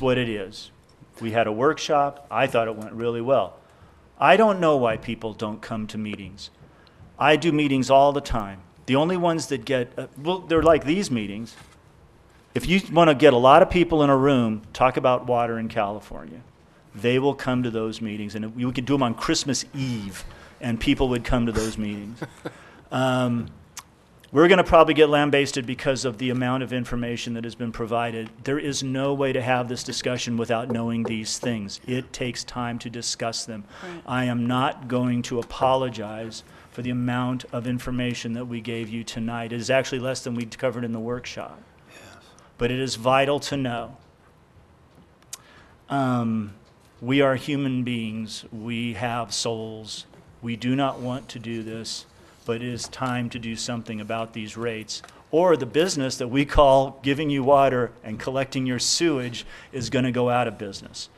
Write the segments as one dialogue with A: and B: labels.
A: what it is. We had a workshop. I thought it went really well. I don't know why people don't come to meetings. I do meetings all the time. The only ones that get, uh, well, they're like these meetings. If you want to get a lot of people in a room, talk about water in California. They will come to those meetings, and we could do them on Christmas Eve, and people would come to those meetings. Um, we're going to probably get lambasted because of the amount of information that has been provided. There is no way to have this discussion without knowing these things. It takes time to discuss them. I am not going to apologize for the amount of information that we gave you tonight. It is actually less than we covered in the workshop. But it is vital to know. Um, we are human beings. We have souls. We do not want to do this, but it is time to do something about these rates. Or the business that we call giving you water and collecting your sewage is going to go out of business.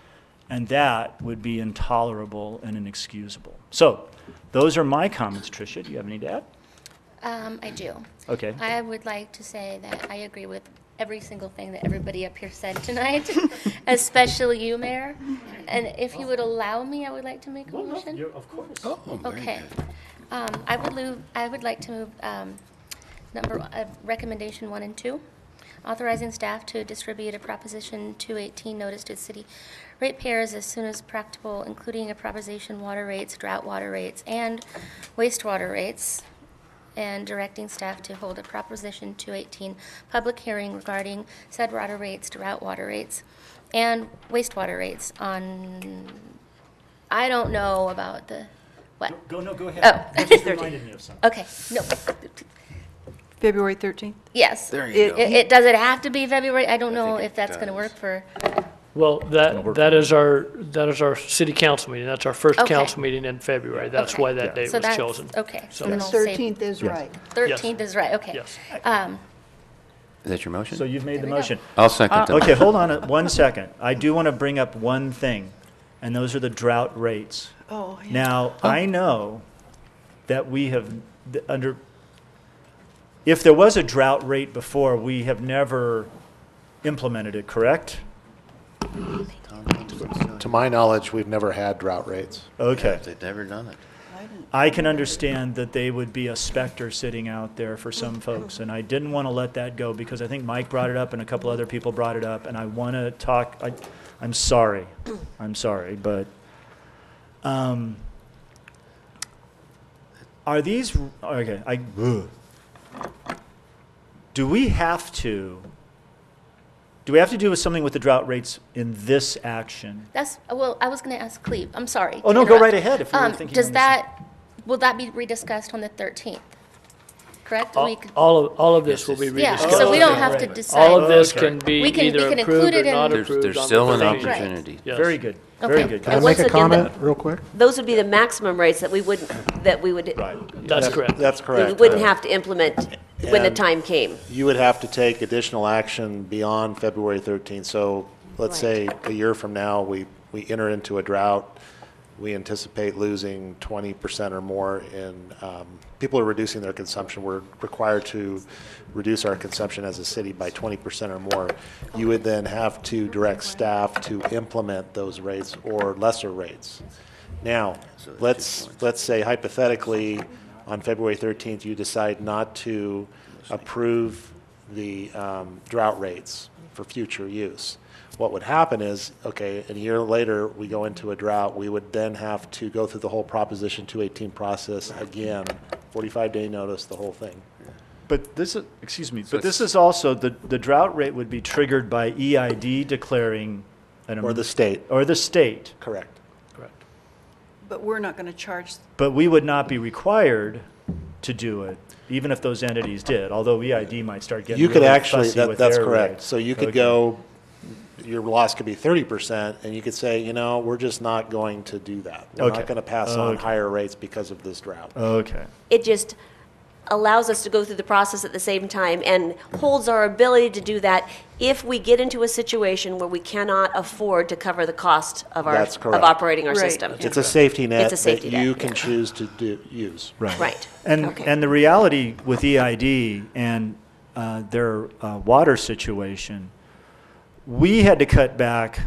A: And that would be intolerable and inexcusable. So, those are my comments, Tricia. Do you have any to add?
B: Um, I do.
A: Okay.
B: I would like to say that I agree with every single thing that everybody up here said tonight, especially you, Mayor. And if you would allow me, I would like to make a motion.
A: Of course.
C: Oh, very
B: Okay.
C: good.
B: Um, I would move, I would like to move, um, number, uh, recommendation one and two, authorizing staff to distribute a Proposition 218 notice to city ratepayers as soon as practicable, including a proposition water rates, drought water rates, and wastewater rates, and directing staff to hold a Proposition 218 public hearing regarding said water rates, drought water rates, and wastewater rates on, I don't know about the, what?
A: Go, no, go ahead.
B: Oh.
A: That just reminded me of something.
B: Okay, no,
D: February 13th?
B: yes.
C: There
B: It,
C: you go.
B: it, does it have to be February? I don't know
C: think
B: if
C: it
B: that's gonna
C: does.
B: work for,
E: Well, that, that is our, that is our city council meeting. That's our first
B: Okay.
E: council meeting in February. That's
B: Okay.
E: why that date
B: so
E: was
B: that's,
E: chosen.
B: okay.
E: So-
B: So then
D: The
B: I'll say
D: 13th is right.
B: thirteenth is right, okay.
E: Yes.
B: Um,
C: Is that your motion?
A: So you've made the
B: There we go.
A: motion.
C: I'll second that.
A: Okay, hold on a- one second. I do want to bring up one thing, and those are the drought rates.
D: Oh,
A: Now, I know that we have, th- under, if there was a drought rate before, we have never implemented it, correct?
F: To my knowledge, we've never had drought rates.
A: Okay.
C: They've never done it.
A: I can understand that they would be a specter sitting out there for some folks, and I didn't want to let that go because I think Mike brought it up and a couple other people brought it up, and I want to talk, I, I'm sorry, I'm sorry, but, um, are these, okay, I, ugh. do we have to, do we have to do with something with the drought rates in this action?
B: That's, well, I was gonna ask Cleve, I'm sorry.
A: Oh, no,
B: to
A: go
B: interrupt.
A: right ahead if you were
B: Um,
A: thinking
B: Does
A: on this.
B: that, will that be rediscussed on the thirteenth? Correct? We
E: All
B: could-
E: all of, all of this will be
B: Yeah,
E: Oh, rediscussed.
B: so we don't have to
A: Right.
E: All
B: decide.
E: of this
A: Okay.
E: can be
B: We can- we
E: either
B: can
E: approved
B: include
E: or
B: it in-
E: not
C: There's,
E: approved.
C: there's
E: on
C: still
E: the
C: an
E: 13th.
B: Right.
C: opportunity.
E: Yes.
A: Very good, very
B: Okay.
A: good.
F: Can I
G: And
F: make
G: once
F: a
G: again, the-
F: comment real quick?
G: Those would be the maximum rates that we wouldn't, that we would,
A: Right.
E: That's correct.
F: That's
G: we
F: correct.
G: wouldn't have to implement when the
F: And-
G: time came.
F: You would have to take additional action beyond February 13th. So let's say a year from now, we, we enter into a drought. We anticipate losing 20% or more in, um, people are reducing their consumption. We're required to reduce our consumption as a city by 20% or more. You would then have to direct staff to implement those rates or lesser rates. Now, let's, let's say hypothetically, on February 13th, you decide not to approve the um, drought rates for future use. What would happen is, okay, and a year later, we go into a drought, we would then have to go through the whole Proposition 218 process again, 45-day notice, the whole thing.
A: But this is, excuse me, but this is also, the, the drought rate would be triggered by EID declaring an. em-
F: Or the state,
A: Or the state,
F: correct.
E: Correct.
D: But we're not going to charge,
A: but we would not be required to do it, even if those entities did, although EID might start getting
F: You could
A: really
F: actually,
A: fussy
F: that,
A: with
F: that's
A: their
F: correct.
A: rates.
F: So you could
A: Okay.
F: go, your loss could be thirty percent, and you could say, you know, we're just not going to do that. We're
A: Okay.
F: not gonna pass on
A: Okay.
F: higher rates because of this drought.
A: Okay,
G: It just allows us to go through the process at the same time and holds our ability to do that if we get into a situation where we cannot afford to cover the cost of our,
F: That's
G: of
F: correct.
G: operating our
D: Right.
G: system.
F: It's a safety net
G: It's a
F: that
G: safety net,
F: you can
G: yeah.
F: choose to do, use.
A: right.
G: Right.
A: And,
G: Okay.
A: and the reality E with EID and uh, their uh, water situation, we had to cut back